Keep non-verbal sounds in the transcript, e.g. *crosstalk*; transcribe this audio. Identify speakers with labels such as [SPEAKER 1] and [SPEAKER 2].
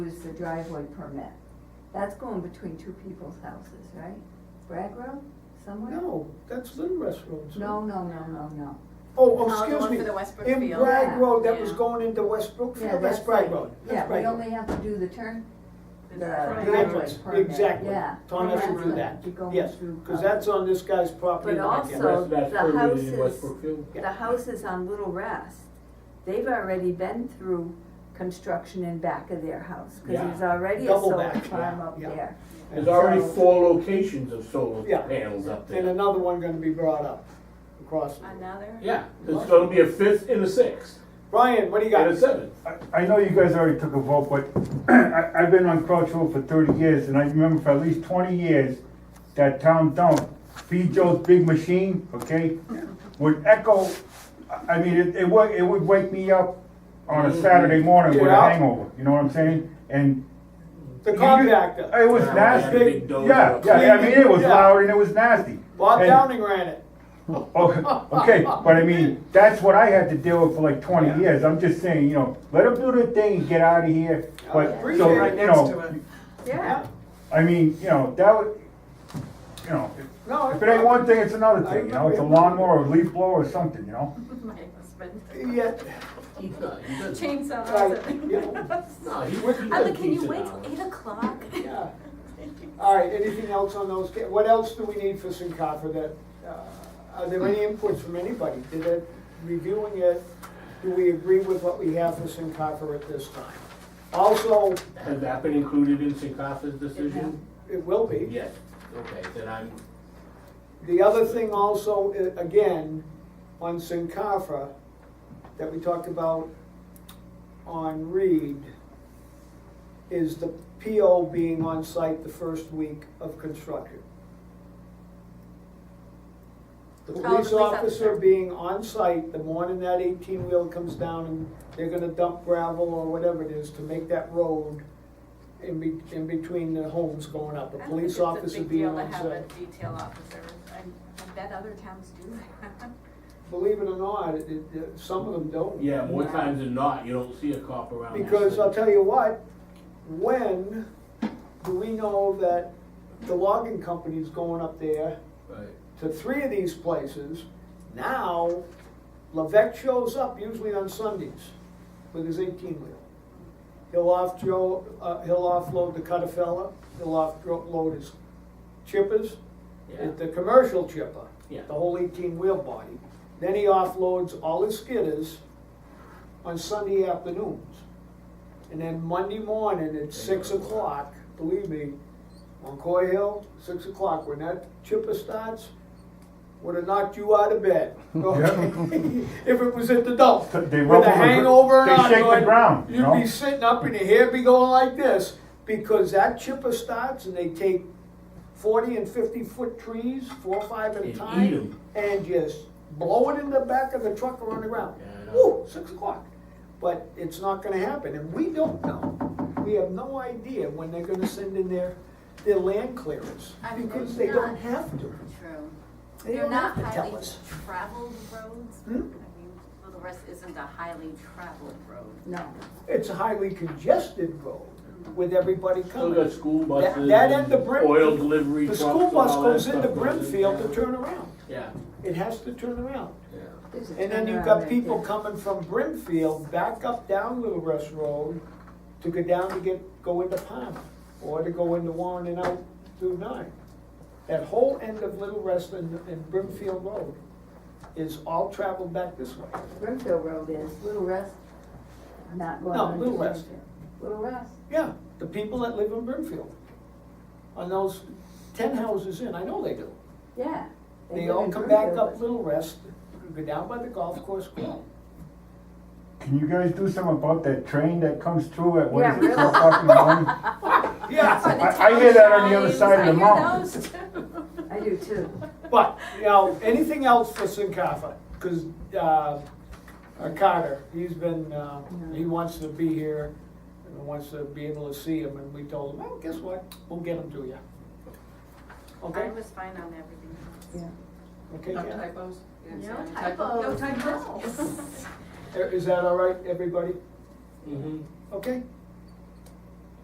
[SPEAKER 1] is the driveway permit. That's going between two people's houses, right? Bragg Road, somewhere?
[SPEAKER 2] No, that's Little Rest Road. sir.
[SPEAKER 1] No, no, no, no, no.
[SPEAKER 2] Oh, oh,
[SPEAKER 3] Oh, the
[SPEAKER 2] excuse
[SPEAKER 3] one
[SPEAKER 2] me.
[SPEAKER 3] for the West
[SPEAKER 2] In
[SPEAKER 3] Brookfield.
[SPEAKER 2] Bragg Road, that was
[SPEAKER 3] Yeah.
[SPEAKER 2] going into West
[SPEAKER 1] Yeah,
[SPEAKER 2] Brookfield, that's Bragg Road. That's
[SPEAKER 1] Yeah,
[SPEAKER 2] Bragg
[SPEAKER 1] we
[SPEAKER 2] Road.
[SPEAKER 1] only have to do the turn, the
[SPEAKER 3] The
[SPEAKER 1] driveway
[SPEAKER 2] entrance,
[SPEAKER 1] permit,
[SPEAKER 2] exactly.
[SPEAKER 1] yeah.
[SPEAKER 2] Tom has to do
[SPEAKER 1] Right.
[SPEAKER 2] that,
[SPEAKER 1] You're going
[SPEAKER 2] yes,
[SPEAKER 1] through
[SPEAKER 2] because
[SPEAKER 1] Cumberland.
[SPEAKER 2] that's on this guy's property.
[SPEAKER 1] But
[SPEAKER 2] and I can't-
[SPEAKER 1] also-
[SPEAKER 4] That's- that's
[SPEAKER 1] the
[SPEAKER 4] permitted
[SPEAKER 1] houses-
[SPEAKER 4] in West Brookfield?
[SPEAKER 1] The houses on Little Rest, they've already been through construction in back of their house, cause
[SPEAKER 4] Yeah.
[SPEAKER 1] there's already a
[SPEAKER 2] Double
[SPEAKER 1] solar
[SPEAKER 2] back,
[SPEAKER 1] farm
[SPEAKER 2] yeah,
[SPEAKER 1] up
[SPEAKER 2] yeah.
[SPEAKER 1] there.
[SPEAKER 4] There's already
[SPEAKER 1] So-
[SPEAKER 4] four locations of solar
[SPEAKER 2] Yeah.
[SPEAKER 4] panels up
[SPEAKER 2] And
[SPEAKER 4] there.
[SPEAKER 2] another one gonna be brought up across.
[SPEAKER 3] Another?
[SPEAKER 4] Yeah, there's gonna be a fifth and a sixth,
[SPEAKER 2] Brian, what do you got?
[SPEAKER 4] and a seventh.
[SPEAKER 5] I- I know you guys already took a vote, but *clears throat* I, I've been on Crouch Road for thirty years, and I remember for at least twenty years, that town dump, B. Joe's Big Machine, okay, would echo, I I mean, it, it would, it would wake me up on a Saturday morning with a
[SPEAKER 2] Mm-hmm. Yeah.
[SPEAKER 5] hangover, you know what I'm saying? And
[SPEAKER 2] The
[SPEAKER 5] You-
[SPEAKER 2] compactor.
[SPEAKER 5] it was
[SPEAKER 4] Yeah,
[SPEAKER 5] nasty,
[SPEAKER 4] big dozer.
[SPEAKER 5] yeah, yeah, I mean, it was
[SPEAKER 2] Yeah.
[SPEAKER 5] loud and it was nasty.
[SPEAKER 2] Bob
[SPEAKER 5] And-
[SPEAKER 2] Downing ran it.
[SPEAKER 5] Oh, okay, but I mean, that's what I had to deal with for like
[SPEAKER 2] Yeah.
[SPEAKER 5] twenty years, I'm just saying, you know, let them do their thing and get out of here, but,
[SPEAKER 2] Yeah.
[SPEAKER 5] so,
[SPEAKER 2] Right
[SPEAKER 5] you know,
[SPEAKER 1] Yeah,
[SPEAKER 2] Yeah.
[SPEAKER 5] I mean, you know, that would, you know, if-
[SPEAKER 2] No.
[SPEAKER 5] if it ain't one thing, it's another
[SPEAKER 2] I
[SPEAKER 5] thing, you know, it's a
[SPEAKER 2] remember.
[SPEAKER 5] lawnmower, or leaf blower, or something, you know?
[SPEAKER 3] *laughs* My husband.
[SPEAKER 2] Yeah,
[SPEAKER 3] Chainsaw.
[SPEAKER 2] Right, *laughs*
[SPEAKER 3] *laughs*
[SPEAKER 4] No,
[SPEAKER 3] I'm
[SPEAKER 4] he
[SPEAKER 3] like, can you wait till eight o'clock? *laughs*
[SPEAKER 2] yeah. All right, anything else on those? ca- What else do we need for Sincarfa that, uh, are there any inputs from anybody? Did it, reviewing it, do we agree with what we have for Sincarfa at this time? Also,
[SPEAKER 4] Has that been included in Sincafa's decision?
[SPEAKER 2] it will be.
[SPEAKER 4] Yes, okay, then I'm,
[SPEAKER 2] The other thing also, i- again, on Sincarfa, that we talked about on Reed, is the PO being on site the first week of construction. The police
[SPEAKER 3] Oh, police
[SPEAKER 2] officer
[SPEAKER 3] officer.
[SPEAKER 2] being on site the morning that eighteen wheel comes down and they're gonna dump gravel or whatever it is to make that road in be, in between the homes going up, the
[SPEAKER 3] I don't think
[SPEAKER 2] police
[SPEAKER 3] it's a
[SPEAKER 2] officer
[SPEAKER 3] big
[SPEAKER 2] being
[SPEAKER 3] deal to
[SPEAKER 2] on site.
[SPEAKER 3] have a Detail officer, I, I bet other towns do that. *laughs*
[SPEAKER 2] Believe it or not, it, it- it, some of them don't.
[SPEAKER 4] yeah, more times than not, you don't see a cop around. that
[SPEAKER 2] Because I'll
[SPEAKER 4] thing.
[SPEAKER 2] tell you what, when do we know that the logging company's going up there
[SPEAKER 4] Right.
[SPEAKER 2] to three of these places? Now, Levesque shows up usually on Sundays with his eighteen wheel. He'll off Joe, uh, he'll offload the Cutafella, he'll offload his chippers,
[SPEAKER 4] Yeah.
[SPEAKER 2] the commercial chipper,
[SPEAKER 4] Yeah.
[SPEAKER 2] the whole eighteen wheel body. Then he offloads all his skidders on Sunday afternoons. And then Monday morning at six o'clock, believe me, on Coy Hill, six o'clock, when that chipper starts, would have knocked you out of
[SPEAKER 5] *laughs*
[SPEAKER 2] bed. *laughs* okay? If it was at the dump.
[SPEAKER 5] They rub
[SPEAKER 2] With a
[SPEAKER 5] on the gr-
[SPEAKER 2] hangover and
[SPEAKER 5] they shake the
[SPEAKER 2] ongoing,
[SPEAKER 5] ground, you know?
[SPEAKER 2] You'd be sitting up and your hair be going like this, because that chipper starts and they take forty and fifty foot trees, four, or five at a
[SPEAKER 4] And eat
[SPEAKER 2] time,
[SPEAKER 4] 'em.
[SPEAKER 2] and just blow it in the back of the truck or on the ground.
[SPEAKER 4] Yeah, I know.
[SPEAKER 2] Woo, six o'clock. But it's not gonna happen, and we don't know. We have no idea when they're gonna send in their, their land clearance,
[SPEAKER 3] I mean,
[SPEAKER 2] because they
[SPEAKER 3] they're
[SPEAKER 2] don't
[SPEAKER 3] not-
[SPEAKER 2] have to.
[SPEAKER 6] True.
[SPEAKER 2] They
[SPEAKER 6] They're
[SPEAKER 2] don't have
[SPEAKER 6] not
[SPEAKER 2] to tell
[SPEAKER 6] highly
[SPEAKER 2] us.
[SPEAKER 6] traveled roads. I
[SPEAKER 2] Hmm?
[SPEAKER 6] mean, Little Rest isn't a highly traveled road.
[SPEAKER 1] no.
[SPEAKER 2] It's a highly congested road with everybody
[SPEAKER 4] Still
[SPEAKER 2] coming.
[SPEAKER 4] got school buses.
[SPEAKER 2] that end of Brim-
[SPEAKER 4] Oil delivery
[SPEAKER 2] The
[SPEAKER 4] trucks.
[SPEAKER 2] school
[SPEAKER 4] and
[SPEAKER 2] bus
[SPEAKER 4] all that
[SPEAKER 2] goes into
[SPEAKER 4] stuff goes in.
[SPEAKER 2] Brimfield to turn around.
[SPEAKER 4] Yeah,
[SPEAKER 2] It has to turn around.
[SPEAKER 4] yeah.
[SPEAKER 1] There's a
[SPEAKER 2] And then you've
[SPEAKER 1] turnaround
[SPEAKER 2] got
[SPEAKER 1] right
[SPEAKER 2] people
[SPEAKER 1] there.
[SPEAKER 2] coming from Brimfield back up down Little Rest Road to go down to get, go into Palmer or to go into Warren and out through nine. That whole end of Little Rest and, and Brimfield Road is all traveled back this way.
[SPEAKER 1] Brimfield Road is, Little Rest, not going
[SPEAKER 2] No,
[SPEAKER 1] on.
[SPEAKER 2] Little Rest.
[SPEAKER 1] Little Rest,
[SPEAKER 2] Yeah, the people that live in Brimfield. On those ten houses in, I know they do.
[SPEAKER 1] yeah.
[SPEAKER 2] They
[SPEAKER 1] live
[SPEAKER 2] all
[SPEAKER 1] in
[SPEAKER 2] come back
[SPEAKER 1] Brimfield,
[SPEAKER 2] up
[SPEAKER 1] but-
[SPEAKER 2] Little Rest, go down by the golf course,
[SPEAKER 1] *laughs*
[SPEAKER 2] go out.
[SPEAKER 5] Can you guys do something about that train that comes through at, what
[SPEAKER 1] Yeah,
[SPEAKER 5] is it, four
[SPEAKER 1] really.
[SPEAKER 5] o'clock in the morning?
[SPEAKER 2] Yeah,
[SPEAKER 5] I, I hear that on the other side of the mountain. *laughs*
[SPEAKER 1] I do too.
[SPEAKER 2] but, you know, anything else for Sinkafa? Cause, uh, uh, Carter, he's been, uh, he wants to be here and wants to be able to see him and we told him, well, guess what? We'll get him to you.
[SPEAKER 6] I
[SPEAKER 2] Okay,
[SPEAKER 6] was fine on everything else.
[SPEAKER 2] okay, yeah.
[SPEAKER 7] typos?
[SPEAKER 6] No
[SPEAKER 7] No
[SPEAKER 6] typos.
[SPEAKER 7] No typos?
[SPEAKER 6] *laughs*
[SPEAKER 2] Er, Uh, Is that all right, everybody?
[SPEAKER 4] Mm-hmm.
[SPEAKER 2] Okay,